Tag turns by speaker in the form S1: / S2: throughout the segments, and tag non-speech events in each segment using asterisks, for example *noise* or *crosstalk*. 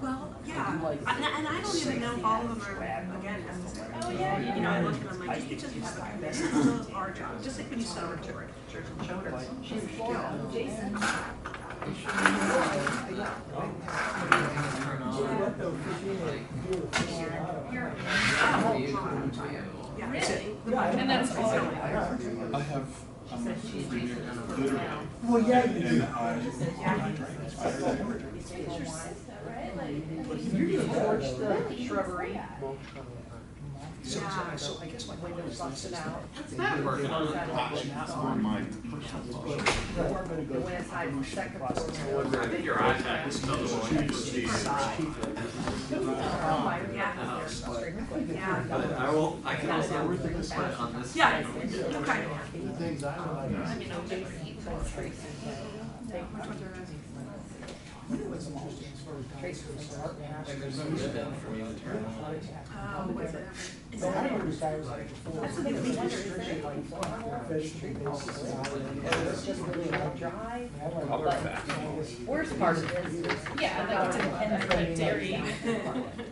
S1: Well, yeah, and, and I don't even know all of them are, again, necessary. Oh, yeah. You know, I look at them like, just because you have a computer, those are jobs, just like when you sell a report, church and shoulders. Yeah.
S2: And that's all.
S3: I have, I'm a freak, literally,
S4: Well, yeah, you
S3: and
S4: do.
S3: I, I drink, I drink.
S5: shrubbery.
S6: So, so I guess my window's not set out.
S5: It's not working.
S2: Oh,
S3: That's where my personal thoughts.
S5: Went aside the second floor.
S2: I think your iPad is another one.
S1: Yeah, yeah,
S2: But I will, I can also work this one on this.
S1: yeah,
S2: one.
S1: okay.
S5: You know, Tracy, Tracy. Tracy was our-
S2: And there's no ribbon for me to turn on.
S1: Oh, was it? Is
S4: I
S1: that
S4: remember
S1: it?
S4: this guy was like four.
S5: That's what makes me wonder, is there any
S4: vegetable basis salad.
S5: It's just really a drive.
S4: I had like-
S5: Worst part of this is.
S2: Yeah, like it's independent, like dairy.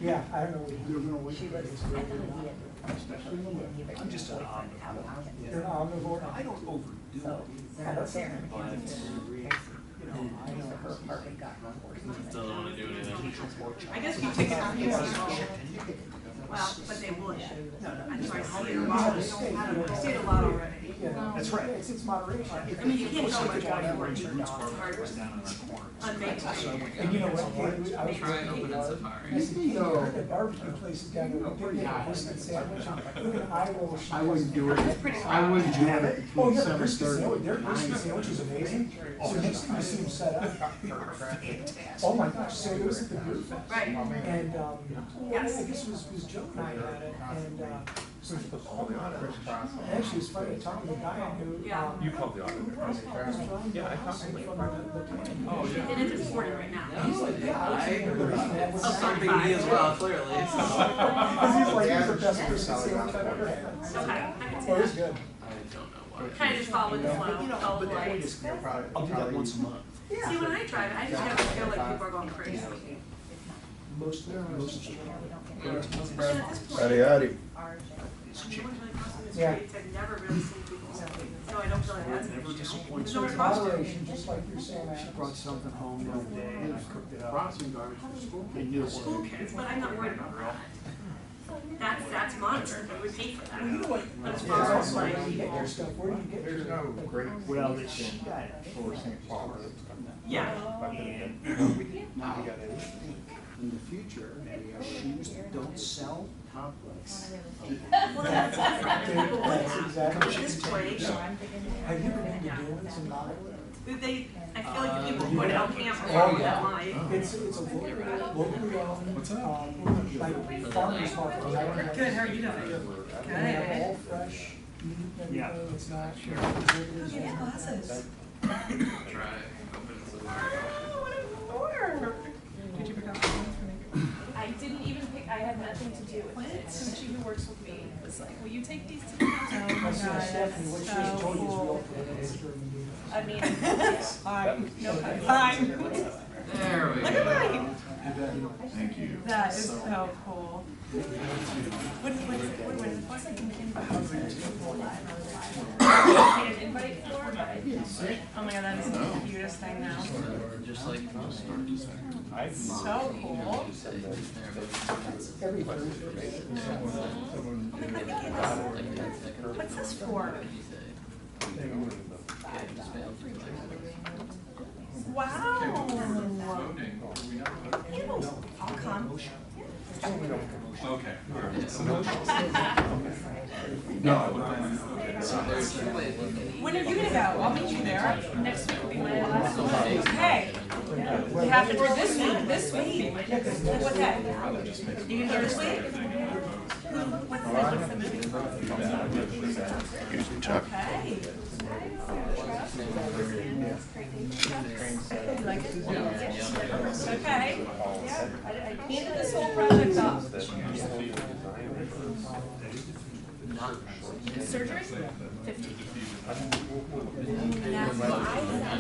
S4: Yeah, I don't know. what you do.
S5: She was, I thought he had.
S6: I'm just an omnivore.
S4: You're an omnivore.
S6: I don't overdo it,
S5: So, that's there.
S6: but, you know, I
S5: So
S6: don't.
S5: her apartment got run horse.
S2: Doesn't wanna do anything.
S1: I guess you take it out here, well, but they would. I'm sorry, I'll be wrong, I don't, I don't, I see it a lot already.
S4: Yeah.
S6: That's right.
S4: It's, it's moderation.
S1: I mean, you can't go much
S6: Down
S1: out
S6: in
S1: here,
S6: the roots where
S1: hard,
S6: it was down in that corner.
S1: unmade time.
S4: And you know what? I was-
S2: Try and open in
S4: I
S2: Safari.
S4: see, you know, the barbecue places down there, we did get a brisket sandwich, look at Iowa.
S7: I wouldn't do it, I wouldn't do it
S4: Oh,
S7: between
S4: yeah, the
S7: seven
S4: brisket sandwich,
S7: thirty.
S4: their brisket sandwich is amazing, so next time you see them set up, oh my gosh, so it was at the Beer Fest.
S1: Right,
S4: And, um, yeah, I guess it was, it was Joe and I had it, and, uh, so it was all on it. Actually, it's funny, Tom, the guy um, I knew.
S1: Yeah.
S4: You called the auditor. Yeah, I constantly. Oh,
S1: and it's at forty right now.
S4: yeah. I was in there. That was-
S1: Oh, sorry.
S2: Something me as well, clearly. so-
S4: Cause he's like, he's the best brisket sandwich I've ever
S1: Okay,
S4: had.
S1: I can see
S4: Well, it's
S1: that.
S4: good.
S2: I don't know why.
S1: Kind of just following the flow,
S6: You know,
S1: follow the
S6: but the point
S1: lights.
S6: is, I'll do that once a month.
S1: See, when I drive, I just have a feel like people are going crazy.
S6: Most, most.
S1: And at this point,
S8: Howdy, howdy.
S1: everyone's really crossing the
S4: Yeah.
S1: streets, I've never really seen people, so I don't feel like that's an
S6: Never
S1: issue.
S6: disappoints.
S1: There's nowhere to cross to.
S4: Moderation, just like you're saying.
S7: She brought something home the other day and I cooked it up.
S6: Brought
S7: some garbage from school. They knew it
S1: School
S7: wasn't.
S1: kids, but I'm not worried about that. That's, that's monitored, but we pay for that. But as
S4: Yeah,
S1: far
S4: that's
S1: as
S4: where
S1: like,
S4: do you get your stuff, where do you get your?
S9: There's no great.
S6: Well, it's-
S9: solution For St. Paul.
S1: yeah,
S9: But then
S6: Now we gotta think, in the future, maybe
S7: uh,
S6: our shoes that don't sell complex.
S1: well, that's different.
S4: That's
S1: At
S4: exactly.
S1: this point,
S4: Have you been to Dylan's in Iowa?
S1: they, I feel like
S6: Uh,
S1: people put out campers all that line.
S4: It's, it's a locally, locally owned.
S3: What's that?
S4: um, Like farmer's market.
S1: Good, how are you doing?
S4: They have all fresh meat and
S6: Yeah.
S4: everything, it's not.
S1: glasses.
S2: Try open in Safari. I didn't even pick, I had nothing to do with it. And she who works with me was like, will you take these to the house?
S4: I said, Stephanie, what she has told you is real.
S2: I *laughs* mean, no, fine. There we go.
S3: Thank you.
S2: That is so cool. What, what, what, what, what's like an invite? An invite for, but I didn't. Oh my god, that is the cutest thing now. Just like. So cool.
S4: Every Thursday.
S2: What's this for? Wow. I'll come.
S3: Okay. No, but then, okay. so there's-
S2: When are you gonna go? I'll meet you there. Next week will be my last one. Okay. It happened for this week, this week. What day? You gonna go this week? What's the, what's the movie? Okay. Okay. Handed this whole project off. Surgery? Fifty. That's what I said.